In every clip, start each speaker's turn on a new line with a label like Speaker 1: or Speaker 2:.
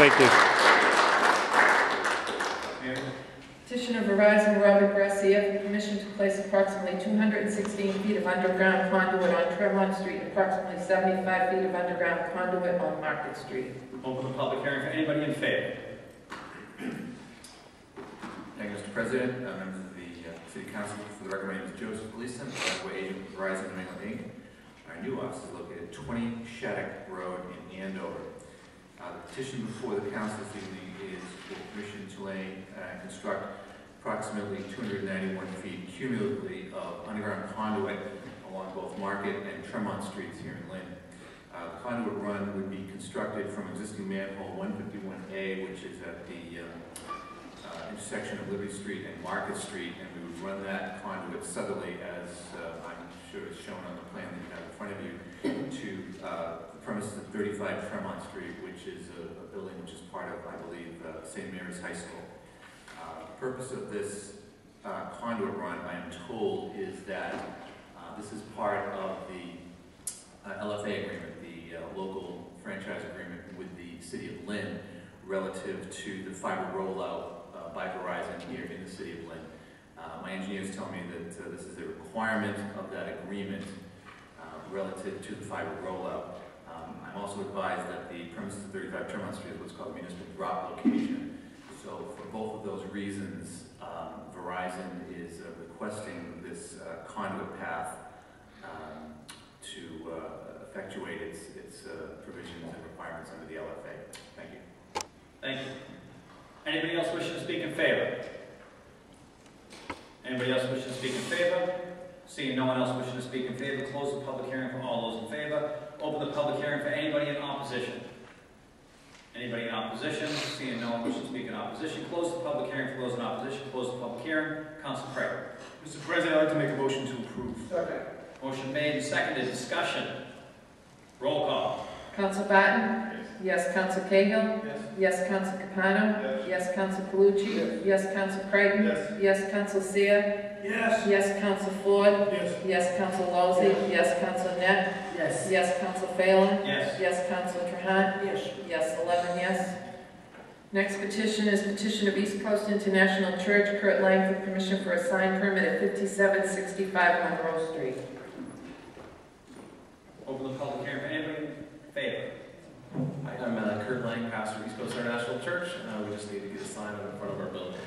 Speaker 1: Thank you.
Speaker 2: Petition of Verizon Robert Gracia for permission to place approximately 216 feet of underground conduit on Tremont Street, and approximately 75 feet of underground conduit on Market Street.
Speaker 3: Open the public hearing for anybody in favor.
Speaker 4: Thank you, Mr. President, uh, members of the uh, City Council. For the record, my name is Joseph Gleason, Broadway agent with Verizon New England Inc. Our new office is located at 20 Shattuck Road in Andover. Uh, The petition before the council this evening is for permission to lay, uh, construct approximately 291 feet cumulatively of underground conduit along both Market and Tremont Streets here in Lynn. Uh, The Conduit run would be constructed from existing manhole 151A, which is at the uh, uh, intersection of Liberty Street and Market Street, and we would run that conduit southerly as uh, I'm sure is shown on the plan that you have in front of you, to uh, the premises of 35 Tremont Street, which is a a building which is part of, I believe, uh, St. Mary's High School. Uh, the Purpose of this uh, conduit run, I am told, is that uh, this is part of the uh, LFA agreement, the uh, local franchise agreement with the city of Lynn relative to the fiber rollout uh, by Verizon here in the city of Lynn. Uh, My engineers tell me that uh, this is a requirement of that agreement uh, relative to the fiber rollout. Um, I'm also advised that the premises of 35 Tremont Street is what's called a municipal drop location. So for both of those reasons, um, Verizon is uh, requesting this uh, conduit path um, to uh, effectuate its its uh, provisions and requirements under the LFA. Thank you.
Speaker 3: Thank you. Anybody else wishing to speak in favor? Anybody else wishing to speak in favor? Seeing no one else wishing to speak in favor, close the public hearing for all those in favor. Open the public hearing for anybody in opposition. Anybody in opposition? Seeing no one wishing to speak in opposition, close the public hearing for those in opposition, close the public hearing. Council Craig.
Speaker 5: Mr. President, I'd like to make a motion to approve.
Speaker 3: Motion made and seconded, discussion. Roll call.
Speaker 2: Council Barton? Yes. Council Cahill?
Speaker 5: Yes.
Speaker 2: Yes. Council Capano?
Speaker 5: Yes.
Speaker 2: Yes. Council Calucci? Yes. Council Creighton?
Speaker 5: Yes.
Speaker 2: Yes. Council Seer?
Speaker 5: Yes.
Speaker 2: Yes. Council Floyd?
Speaker 5: Yes.
Speaker 2: Yes. Council Lozey? Yes. Council Net?
Speaker 3: Yes.
Speaker 2: Yes. Council Phelan?
Speaker 3: Yes.
Speaker 2: Yes. Council Trahan?
Speaker 5: Yes.
Speaker 2: Yes, 11 yes. Next petition is petition of East Coast International Church, Kurt Lang, for permission for a sign permit at 5765 Monroe Street.
Speaker 3: Open the public hearing for anybody in favor.
Speaker 6: Hi, I'm uh, Kurt Lang, pastor of East Coast International Church. Uh, we just need to get a sign up in front of our building.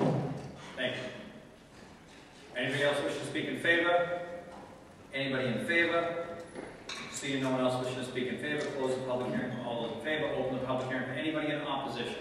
Speaker 3: Thank you. Anybody else wishing to speak in favor? Anybody in favor? Seeing no one else wishing to speak in favor, close the public hearing for all those in favor, open the public hearing for anybody in opposition.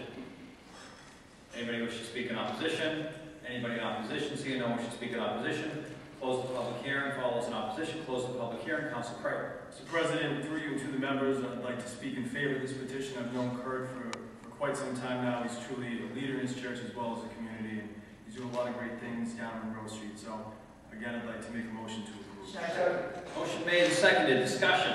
Speaker 3: Anybody wishing to speak in opposition? Anybody in opposition, seeing no one wishing to speak in opposition, close the public hearing for all those in opposition, close the public hearing, Council Creighton.
Speaker 5: Mr. President, through you to the members, I'd like to speak in favor of this petition. I've known Kurt for, for quite some time now. He's truly a leader in his church as well as the community. and He's doing a lot of great things down on Rose Street. So again, I'd like to make a motion to approve.
Speaker 3: Motion made and seconded, discussion.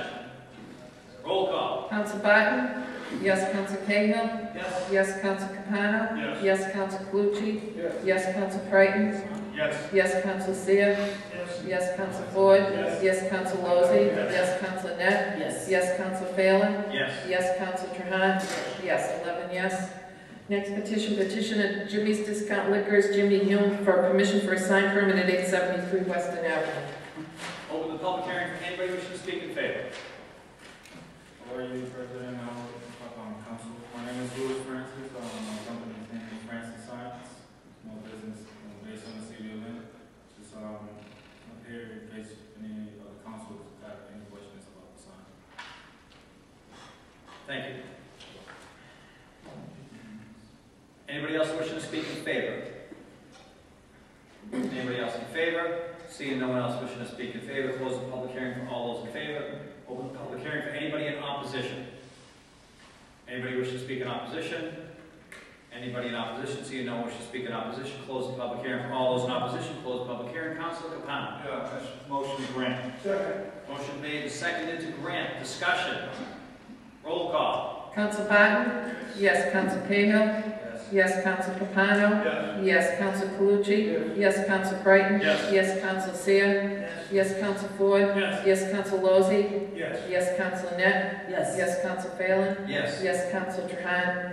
Speaker 3: Roll call.
Speaker 2: Council Barton? Yes, Council Cahill?
Speaker 3: Yes.
Speaker 2: Yes, Council Capano?
Speaker 5: Yes.
Speaker 2: Yes, Council Calucci?
Speaker 5: Yes.
Speaker 2: Yes, Council Creighton?
Speaker 5: Yes.
Speaker 2: Yes, Council Seer?
Speaker 5: Yes.
Speaker 2: Yes, Council Floyd?
Speaker 5: Yes.
Speaker 2: Yes, Council Lozey?
Speaker 5: Yes.
Speaker 2: Yes, Council Net? Yes. Yes, Council Phelan?
Speaker 3: Yes.
Speaker 2: Yes, Council Trahan? Yes, 11 yes. Next petition, petition of Jimmy's Discount Liquors, Jimmy Hume, for permission for a sign permit at 873 Weston Avenue.
Speaker 3: Open the public hearing for anybody wishing to speak in favor.
Speaker 5: How are you, President? How are um, Council? My name is Louis Francis. Um, my company's name is Francis Science. My business is based on the city of Lynn. Just um, I'm here in case any of the councils have any questions about the sign.
Speaker 3: Thank you. Anybody else wishing to speak in favor? Anybody else in favor? Seeing no one else wishing to speak in favor, close the public hearing for all those in favor. Open the public hearing for anybody in opposition. Anybody wishing to speak in opposition? Anybody in opposition, seeing no one wishing to speak in opposition, close the public hearing for all those in opposition, close the public hearing. Council Capano.
Speaker 5: Yeah, motion to grant.
Speaker 3: Motion made and seconded to grant. Discussion. Roll call.
Speaker 2: Council Barton? Yes, Council Cahill?
Speaker 3: Yes.
Speaker 2: Yes, Council Capano?
Speaker 5: Yes.
Speaker 2: Yes, Council Calucci? Yes, Council Creighton?
Speaker 3: Yes.
Speaker 2: Yes, Council Seer? Yes, Council Floyd?
Speaker 5: Yes.
Speaker 2: Yes, Council Lozey?
Speaker 5: Yes.
Speaker 2: Yes, Council Net? Yes, Council Phelan?
Speaker 3: Yes.
Speaker 2: Yes, Council Trahan?